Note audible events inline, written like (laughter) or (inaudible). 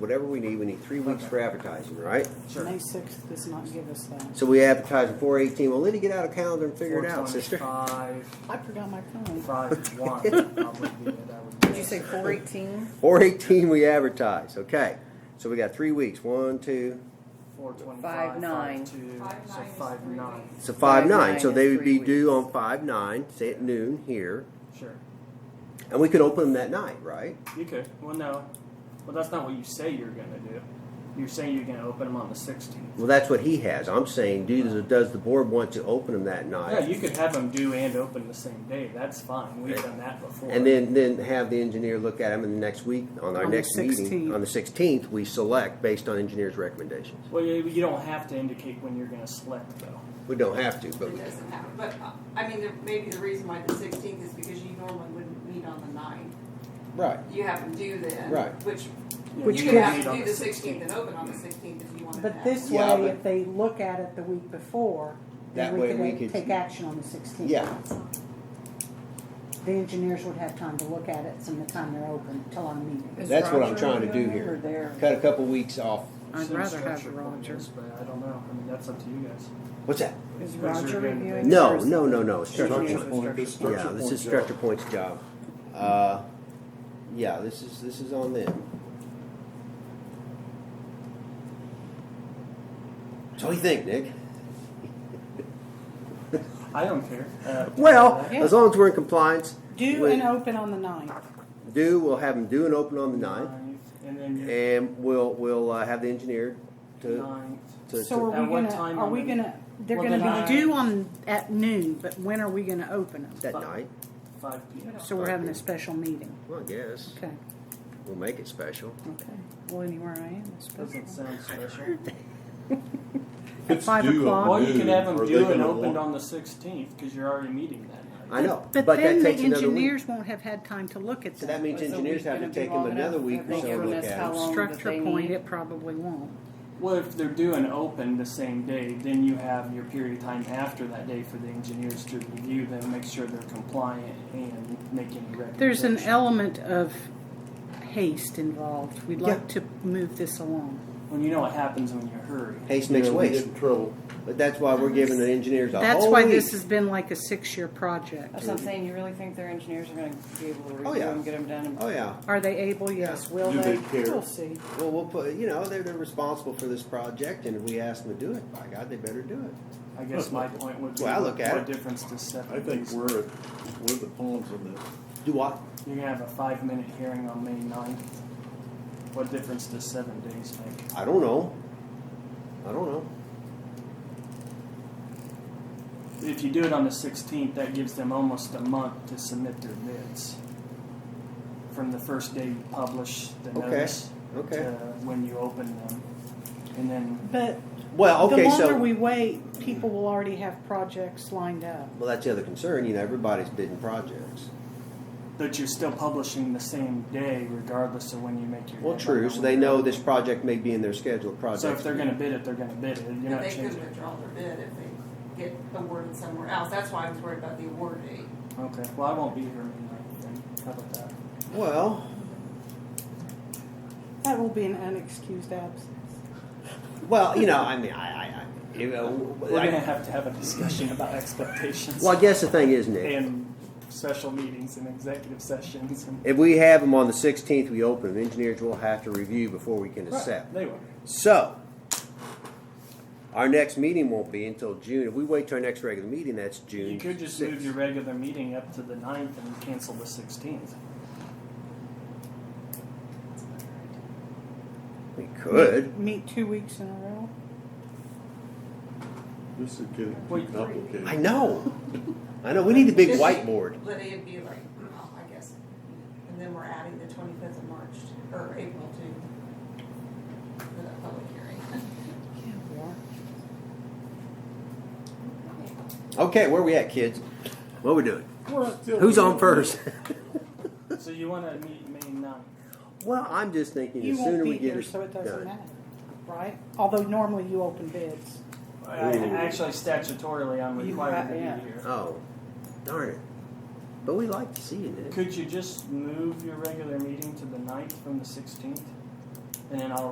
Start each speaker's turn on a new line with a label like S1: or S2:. S1: whatever we need, we need three weeks for advertising, right?
S2: May sixth does not give us that.
S1: So we advertise four eighteen, well, let it get out of calendar and figure it out, sister.
S3: 425,
S2: I forgot my
S3: (laughs)
S2: phone.
S3: 51 probably be it, I would
S4: Did you say four eighteen?
S1: Four eighteen, we advertise, okay. So we got three weeks, one, two,
S3: Four twenty-five,
S4: Five nine.
S3: so five nine.
S1: so five nine,
S4: nine
S1: so
S4: is
S1: they would
S4: three
S1: be due
S4: weeks.
S1: on five nine, say at noon here.
S3: Sure.
S1: And we could open them that night, right?
S3: You could. Well, no. Well, that's not what you say you're going to do. You're saying you're going to open them on the 16th.
S1: Well, that's what he has. I'm saying, do, the- does the board want to open them that
S3: Yeah,
S1: night?
S3: you could have them due and open the same day. That's fine. We've done that before.
S1: And then, then have the engineer look at them in the next week, on our
S2: On the
S1: next meeting.
S2: 16th.
S1: On the sixteenth, we select based on engineer's recommendations.
S3: Well, you, you don't have to indicate when you're going to select, though.
S1: We don't have to, but
S5: It
S1: we
S5: doesn't matter, but, uh, I mean, there- maybe the reason why the sixteenth is because you normally wouldn't meet on the ninth.
S1: Right.
S5: You have them due then.
S1: Right.
S5: Which,
S3: Yeah,
S2: Which
S3: can
S5: you could
S2: gives-
S5: have
S3: meet
S5: to
S3: on
S5: do the sixteenth
S3: 16th.
S5: and open on the sixteenth if you wanted
S2: But
S5: that.
S2: this
S1: Yeah,
S2: way,
S1: but-
S2: if they look at it the week before,
S1: That
S2: then we
S1: way we
S2: could
S1: could-
S2: take action on the sixteenth.
S1: Yeah.
S2: The engineers would have time to look at it from the time they're open till our meeting.
S1: That's what I'm trying to do here. Cut a couple weeks off.
S4: I'd
S3: Some
S4: rather have
S3: structure point
S4: Roger.
S3: is, But I don't know. I mean, that's up to you guys.
S1: What's that?
S4: Is
S3: Those
S4: Roger
S3: are gonna be-
S4: reviewing?
S1: No, no, no, no. It's Stretcher
S6: Structure
S1: point.
S6: point. this is
S1: Yeah, this
S6: point
S1: is
S6: job.
S1: stretcher point's job. Uh, yeah, this is this is on them. So what do you think, Nick?
S3: I don't care. Uh,
S1: Well,
S2: Yeah.
S1: as long as we're in compliance,
S2: Due
S1: we-
S2: and open on the ninth.
S1: do we'll have them do and open on the ninth,
S3: And then you're
S1: and we'll we'll uh, have the engineer to.
S3: ninth.
S1: to,
S2: So
S1: to
S2: are
S3: At
S2: we
S3: what
S2: gonna,
S3: time
S2: are
S3: on
S2: we
S3: the-
S2: gonna, they're
S3: Well,
S2: gonna
S3: the
S2: be
S3: ninth.
S2: due on, at noon, but when are we gonna open them?
S1: that night.
S3: 5 p.m.
S2: So we're having a special meeting.
S1: Well, I guess
S2: Okay,
S1: we'll make it special.
S2: okay. Well, anywhere I am, it's special.
S3: Doesn't sound special.
S6: If it's
S2: five
S6: due
S2: o'clock.
S6: on
S3: Well, you
S6: noon,
S3: could have
S6: are
S3: them
S6: they
S3: due and
S6: gonna
S3: opened
S6: want-
S3: on the 16th because you're already meeting that
S1: I
S3: night.
S1: know,
S2: But
S1: but that
S2: then the
S1: takes another week.
S2: engineers won't have had time to look at
S1: So that
S2: that.
S1: means engineers have to take them another week or so to look at it.
S2: Structure point, it probably won't.
S3: Well, if they're due and open the same day, then you have your period of time after that day for the engineers to review them, make sure they're compliant, and make any recommendations.
S2: There's an element of haste involved. We'd like
S1: Yeah.
S2: to move this along.
S3: When you know what happens when you hurry.
S1: Haste
S6: Yeah,
S1: makes
S6: we
S1: waste,
S6: get in trouble.
S1: but that's why we're giving the engineers a
S2: That's
S1: whole
S2: why
S1: week.
S2: this has been like a six-year project.
S4: That's what I'm saying, you really think their engineers are gonna be able to
S1: Oh,
S4: review
S1: yeah.
S4: them, get them done? and-
S1: Oh yeah,
S2: Are they able? Yes. Will
S6: Do
S2: they?
S6: they care?
S2: We'll see.
S1: well we'll put, you know, they're, they're responsible for this project and if we ask them to do it, by God, they better do it.
S3: I guess my point would be,
S1: Well, I look at
S3: what
S1: it.
S3: difference does seven
S6: I think
S3: days-
S6: we're, we're the pawns in this.
S1: Do what?
S3: You're gonna have a five-minute hearing on May 9th. What difference does seven days make?
S1: I don't know. I don't know.
S3: If you do it on the 16th, that gives them almost a month to submit their bids. From the first day you publish the
S1: Okay,
S3: notice
S1: okay.
S3: to when you open them. And then,
S2: But
S1: Well,
S2: the
S1: okay,
S2: longer
S1: so,
S2: we
S1: well,
S2: wait, people will already have projects lined up.
S1: that's the other concern, you know, everybody's bidding projects.
S3: but you're still publishing the same day regardless of when you make your.
S1: Well,
S3: deadline
S1: true,
S3: or
S1: so
S3: when
S1: they
S3: you're
S1: know
S3: open.
S1: this project may be in their schedule of projects.
S3: So if they're gonna bid it, they're gonna bid it. You're
S5: And
S3: not
S5: they could
S3: changing.
S5: withdraw their bid if they get awarded somewhere else. That's why I was worried about the award date.
S3: Okay, well, I won't be here May 9th then. How about that?
S1: Well,
S2: That will be an unexcused absence.
S1: well, you know, I mean, I, I, I, you know,
S3: We're
S1: I-
S3: gonna have to have a discussion about expectations.
S1: well, I guess the thing is, Nick.
S3: And special meetings and executive sessions and.
S1: If we have them on the 16th, we open them. Engineers will have to review before we can
S3: Right,
S1: accept.
S3: They will.
S1: So, our next meeting won't be until June. If we wait till our next regular meeting, that's June.
S3: You could just
S1: 6th.
S3: move your regular meeting up to the ninth and cancel the sixteenth.
S1: We could.
S2: Meet two weeks in a row.
S6: This is getting
S3: Wait.
S6: too complicated.
S1: I know. I know. We need a big
S5: Just-
S1: whiteboard.
S5: But it'd be like, oh, I guess. And then we're adding the twenty-fifth of March, or April to, for that public hearing.
S1: Okay, where we at, kids? What we doing?
S6: We're still-
S1: Who's on first? (laughs)
S3: So you wanna meet May ninth?
S1: well, I'm just thinking
S2: You
S1: the sooner
S2: won't
S1: we
S2: be
S1: get
S2: here,
S1: it
S2: so it
S1: done.
S2: doesn't matter, right? Although normally you open bids.
S3: I-
S6: Ooh.
S3: Actually statutorily, I'm
S4: You
S3: required to
S4: have- yeah.
S3: be here.
S1: Oh, darn it. But we like to see you, Nick.
S3: Could you just move your regular meeting to the ninth from the sixteenth? and then I'll